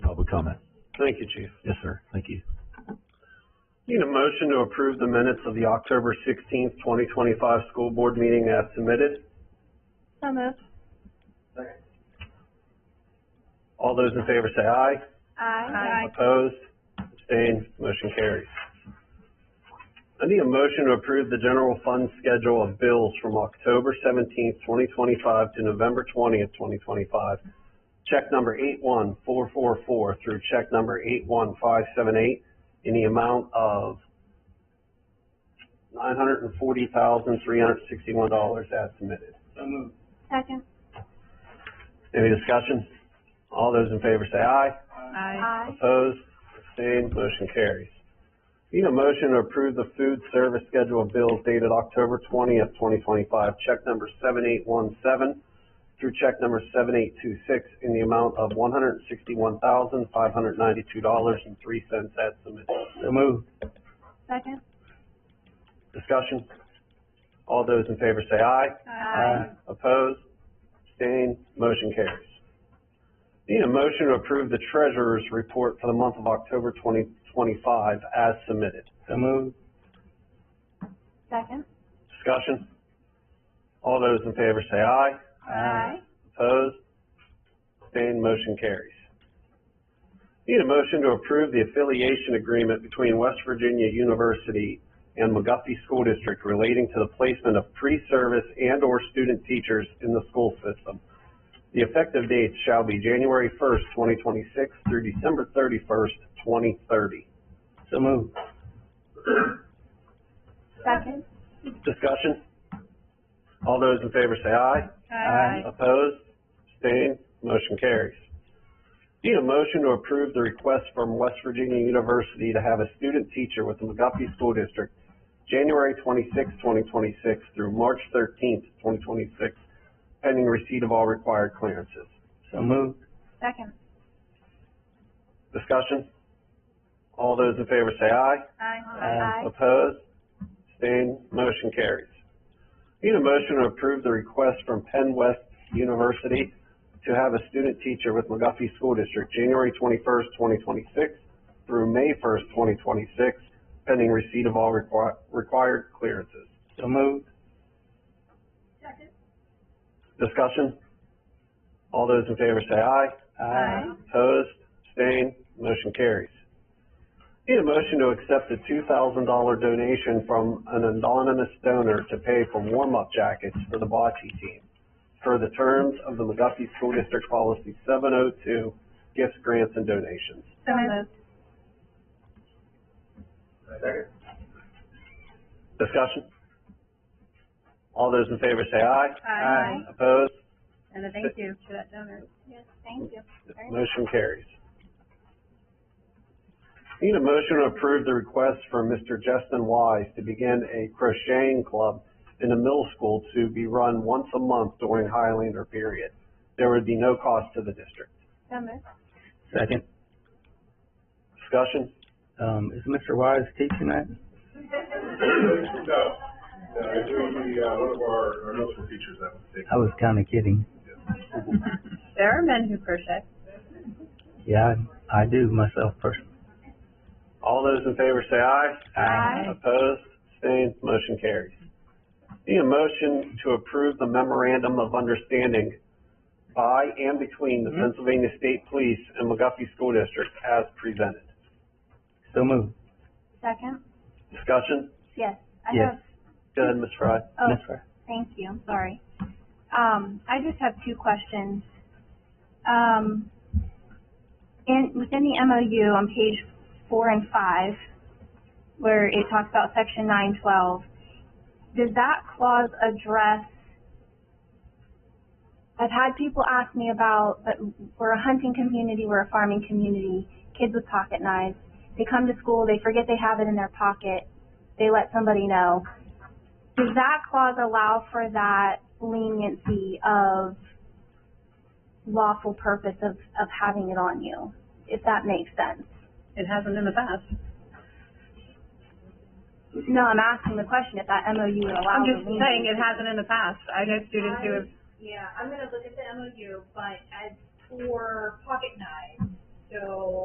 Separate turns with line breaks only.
comment.
Thank you, Chief.
Yes, sir. Thank you.
Need a motion to approve the minutes of the October sixteenth, twenty twenty-five school board meeting as submitted.
So moved.
All those in favor say aye.
Aye.
Opposed? Abstained? Motion carries. I need a motion to approve the general fund schedule of bills from October seventeenth, twenty twenty-five to November twentieth, twenty twenty-five. Check number eight-one-four-four-four through check number eight-one-five-seven-eight in the amount of nine hundred and forty thousand, three hundred and sixty-one dollars as submitted.
Second.
Any discussion? All those in favor say aye.
Aye.
Opposed? Abstained? Motion carries. Need a motion to approve the food service schedule of bills dated October twentieth, twenty twenty-five, check number seven eight one seven through check number seven eight two six in the amount of one hundred and sixty-one thousand, five hundred ninety-two dollars and three cents as submitted. So moved.
Second.
Discussion? All those in favor say aye.
Aye.
Opposed? Abstained? Motion carries. Need a motion to approve the treasurer's report for the month of October twenty twenty-five as submitted. So moved.
Second.
Discussion? All those in favor say aye.
Aye.
Opposed? Abstained? Motion carries. Need a motion to approve the affiliation agreement between West Virginia University and McGuffey School District relating to the placement of pre-service and/or student teachers in the school system. The effective dates shall be January first, twenty twenty-six through December thirty-first, twenty thirty. So moved.
Second.
Discussion? All those in favor say aye.
Aye.
Opposed? Abstained? Motion carries. Need a motion to approve the request from West Virginia University to have a student teacher with the McGuffey School District, January 26, twenty twenty-six through March thirteenth, twenty twenty-six, pending receipt of all required clearances. So moved.
Second.
Discussion? All those in favor say aye.
Aye.
Opposed? Abstained? Motion carries. Need a motion to approve the request from Penn West University to have a student teacher with McGuffey School District, January twenty-first, twenty twenty-six through May first, twenty twenty-six, pending receipt of all requi- required clearances. So moved.
Second.
Discussion? All those in favor say aye.
Aye.
Opposed? Abstained? Motion carries. Need a motion to accept a two thousand dollar donation from an anonymous donor to pay for warm-up jackets for the bocce team for the terms of the McGuffey School District Policy seven oh two, gifts, grants, and donations.
So moved.
Discussion? All those in favor say aye.
Aye.
Opposed?
And a thank you to that donor.
Yes, thank you. Very much.
Motion carries. Need a motion to approve the request for Mr. Justin Wise to begin a crocheting club in the middle school to be run once a month during Highlander period. There would be no cost to the district.
So moved.
Second.
Discussion?
Um, is Mr. Wise teaching that?
No, no, it would be, uh, one of our, our middle school teachers that would take.
I was kinda kidding.
There are men who crochet.
Yeah, I, I do myself personally.
All those in favor say aye.
Aye.
Opposed? Abstained? Motion carries. Need a motion to approve the memorandum of understanding by and between the Pennsylvania State Police and McGuffey School District as presented.
So moved.
Second.
Discussion?
Yes. I
Yes.
have
Go ahead, Ms. Fry.
Oh,
Yes, sir.
thank you, I'm sorry. Um, I just have two questions. Um, in, within the MOU on page four and five, where it talks about section nine twelve, does that clause address? I've had people ask me about, but we're a hunting community, we're a farming community, kids with pocket knives. They come to school, they forget they have it in their pocket, they let somebody know does that clause allow for that leniency of lawful purpose of, of having it on you, if that makes sense?
It hasn't in the past.
No, I'm asking the question if that MOU would allow
I'm
the
just
leniency.
saying it hasn't in the past. I know students who have,
Yeah, I'm gonna look at the MOU, but as for pocket knives, so